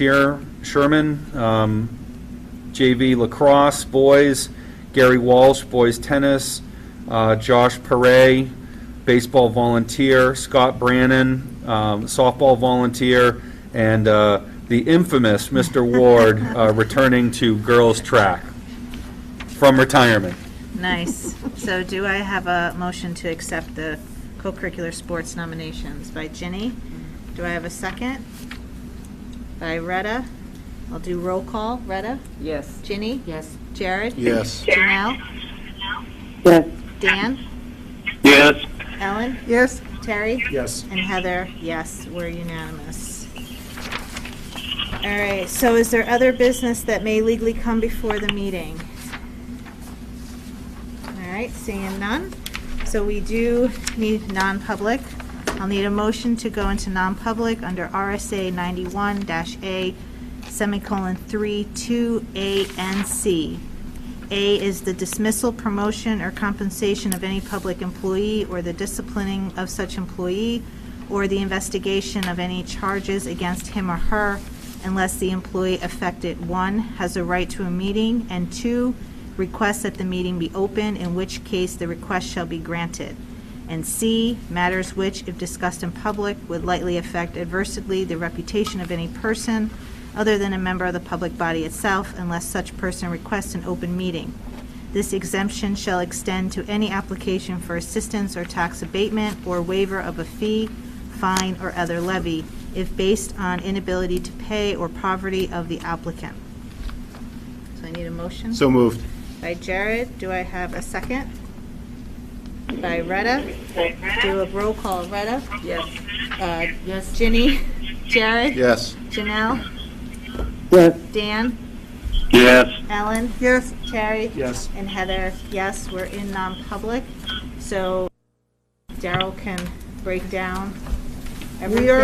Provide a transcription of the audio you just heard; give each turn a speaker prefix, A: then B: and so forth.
A: Here, Sherman, um, JV lacrosse, boys, Gary Walsh, boys tennis, uh, Josh Paray, baseball volunteer, Scott Brannon, um, softball volunteer, and uh, the infamous Mr. Ward uh, returning to girls' track from retirement.
B: Nice. So do I have a motion to accept the co-curricular sports nominations by Ginny? Do I have a second? By Retta? I'll do roll call. Retta?
C: Yes.
B: Ginny?
C: Yes.
B: Jared?
D: Yes.
B: Janelle?
C: Yes.
B: Dan?
D: Yes.
B: Ellen?
C: Yes.
B: Terry?
D: Yes.
B: And Heather, yes, we're unanimous. All right, so is there other business that may legally come before the meeting? All right, seeing none. So we do need non-public. I'll need a motion to go into non-public under RSA 91-A semicolon 3, 2, A and C. A is the dismissal, promotion, or compensation of any public employee, or the disciplining of such employee, or the investigation of any charges against him or her, unless the employee affected, one, has a right to a meeting, and two, requests that the meeting be open, in which case the request shall be granted. And C, matters which, if discussed in public, would likely affect adversely the reputation of any person other than a member of the public body itself unless such person requests an open meeting. This exemption shall extend to any application for assistance or tax abatement or waiver of a fee, fine, or other levy if based on inability to pay or poverty of the applicant. So I need a motion?
D: So moved.
B: By Jared, do I have a second? By Retta? Do a roll call, Retta?
C: Yes.
B: Uh,
C: Yes.
B: Ginny? Jared?
D: Yes.
B: Janelle?
C: Yes.
B: Dan?
D: Yes.
B: Ellen? Yes. Terry? Yes. And Heather, yes, we're in non-public, so Daryl can break down everything.